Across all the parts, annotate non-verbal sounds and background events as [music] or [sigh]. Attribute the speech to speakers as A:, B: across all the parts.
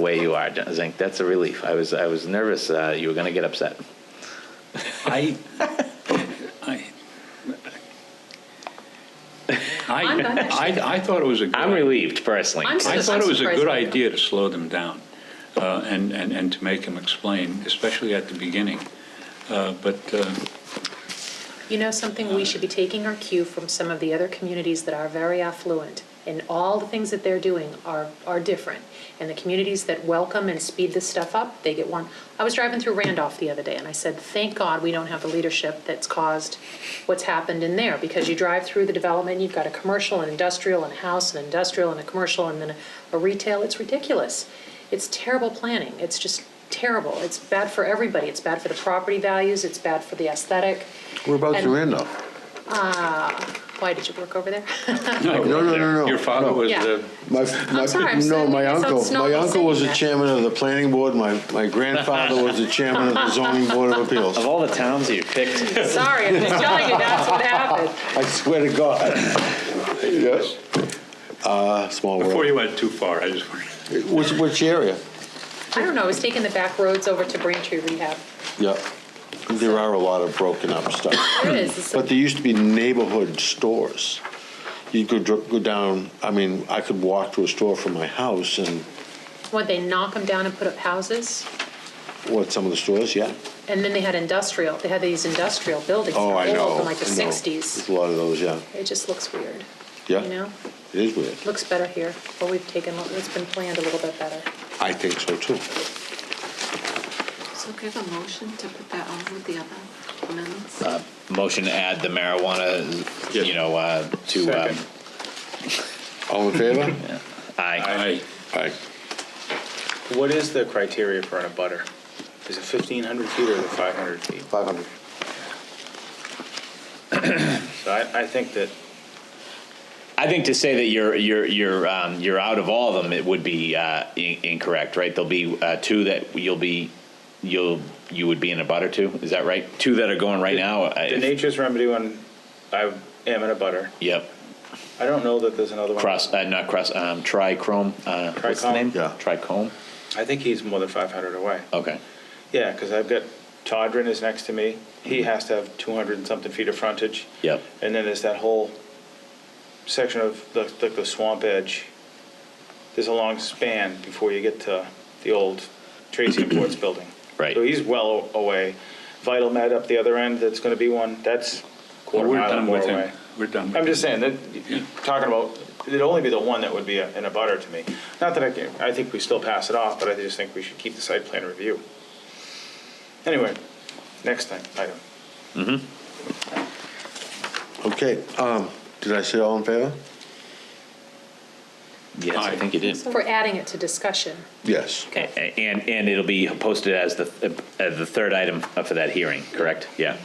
A: the way you are, Zink. That's a relief. I was, I was nervous uh, you were going to get upset.
B: I, I,
C: I'm
B: I,
C: not-
B: I, I thought it was a good.
A: I'm relieved personally.
C: I'm
B: I thought it was a
C: surprised
B: good
C: by that.
B: idea to slow them down uh, and, and, and to make them explain, especially at the beginning. Uh, But uh,
C: You know something, we should be taking our cue from some of the other communities that are very affluent, and all the things that they're doing are, are different. And the communities that welcome and speed this stuff up, they get one. I was driving through Randolph the other day, and I said, thank God we don't have the leadership that's caused what's happened in there, because you drive through the development, you've got a commercial and industrial and a house and industrial and a commercial and then a retail, it's ridiculous. It's terrible planning, it's just terrible, it's bad for everybody, it's bad for the property values, it's bad for the aesthetic.
D: Whereabouts
C: And-
D: you in though?
C: Why, did you work over
D: [laughs]
C: there?
D: No, no, no, no.
B: your father
D: no.
B: was,
C: Yeah.
B: uh,
D: My, my,
C: sorry, I'm
D: no,
C: saying
D: my
C: it sounds
D: uncle, my
C: snobby
D: uncle was
C: saying
D: the
C: that.
D: chairman of the planning board, my, my grandfather was the chairman of the zoning board of appeals.
A: Of all the towns that you picked,
C: Sorry, I'm just telling you, that's what happened.
D: I swear to God. Yes. Uh, small
B: before
D: world.
B: you went too far, I just, wanted-
D: Which, which area?
C: I don't know, I was taking the back roads over to Braintree Rehab.
D: Yeah, there are a lot of broken up stuff.
C: There it is, it's
D: But there used to be neighborhood stores. You could dr- go down, I mean, I could walk to a store from my house and,
C: what, they knock them down and put up houses?
D: what, some of the stores, yeah.
C: And then they had industrial, they had these industrial buildings, that
D: Oh,
C: were
D: I know.
C: old from like the
D: I know. There's
C: sixties.
D: a lot of those, yeah,
C: It just looks weird, you
D: yeah.
C: know?
D: It is weird.
C: Looks better here, but we've taken, it's been planned a little bit better.
D: I think so too.
E: So give a motion to put that on with the other amendments.
A: motion to add the marijuana, you
B: Yes.
A: know, uh, to, um,
B: Second.
D: All in favor?
A: aye.
B: I,
D: Aye.
F: What is the criteria for an abutter? Is it 1,500 feet or the 500 feet?
D: Five hundred.
F: So I, I think that,
A: I think to say that you're, you're, you're, um, you're out of all of them, it would be, uh, in- incorrect, right? There'll be, uh, two that you'll be, you'll, you would be in a butter to, is that right? Two that are going right now? uh, I-
F: the nature's remedy one, I am an abutter.
A: Yep,
F: I don't know that there's another one.
A: cross, uh, not cross, um, trichrome, uh, what's the
F: Trichome?
A: name?
D: Yeah.
A: Trichome,
F: I think he's more than 500 away.
A: okay.
F: Yeah, because I've got, Todrin is next to me. He has to have 200 and something feet of frontage.
A: Yep.
F: And then there's that whole section of the, the- the swamp edge. There's a long span before you get to the old Tracy and
B: [clears throat]
F: Ports building.
A: Right.
F: So he's well away. Vital Med up the other end, that's going to be one, that's quarter
B: we're
F: mile
B: done
F: more
B: with
F: away.
B: him. We're done with him.
F: I'm just saying that, you're talking about, it'd only be the one that would be a- in a butter to me. Not that I can, I think we still pass it off, but I just think we should keep the site plan review. Anyway, next time, item.
D: Okay, um, did I say all in favor?
A: Yes, I
B: Aye.
A: think you did.
C: For adding it to discussion,
D: Yes.
A: A- a- And, and it'll be posted as the, uh, the third item for that hearing, correct? Yeah.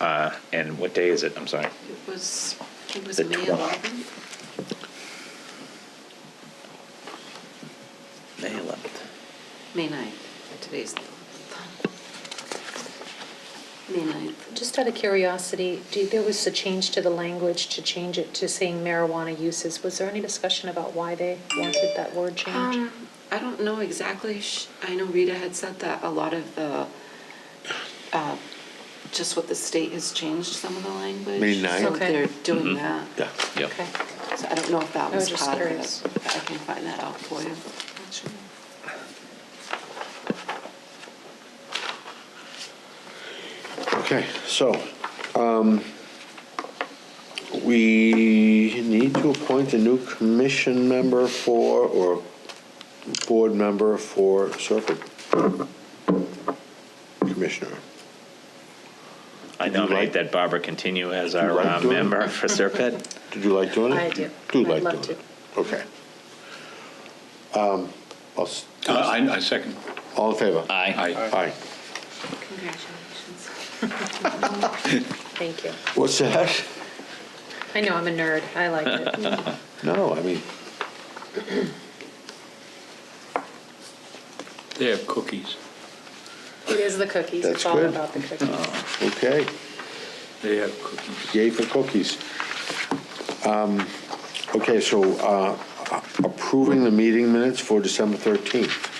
A: Uh, And what day is it? I'm sorry.
E: It was, it was
A: The
E: May
A: 12th.
E: 11th.
A: May 11th.
E: May 9th, today's the 11th. May 9th.
C: just out of curiosity, do, there was a change to the language to change it to saying marijuana uses. Was there any discussion about why they wanted that word change?
E: Um, I don't know exactly, Sh- I know Rita had said that a lot of the, uh, just what the state has changed some of the language.
D: May 9th?
E: So
C: Okay.
E: they're doing that.
D: Yeah.
A: Yep.
C: Okay,
E: So I don't know if that
C: I
E: was
C: was just
E: part of
C: curious.
E: it. but I can find that out for you, actually.
D: Okay, so, um, we need to appoint a new commission member for, or board member for Serpent. Commissioner.
A: I
D: nominate
A: nominate that Barbara continue as
D: our,
A: our
D: like uh, doing it?
A: member
D: member
A: for Serpent.
D: Did you like doing it?
C: I do.
D: Do
C: I'd
D: like
C: love
D: doing it? Okay. Um, I'll s-
B: Uh, I, I second.
D: all in favor?
A: [laughs] Aye.
B: I,
D: Aye.
E: Congratulations.
C: [laughs] thank you.
D: What's that?
C: I know, I'm a nerd. I like it.
D: [laughs] No, I mean,
B: they have cookies.
C: It is the cookies.
D: That's
C: It's all
D: good.
C: about the cookies.
D: okay.
B: They have cookies.
D: Yay for cookies. Um, Okay, so uh, approving the meeting minutes for December 13th.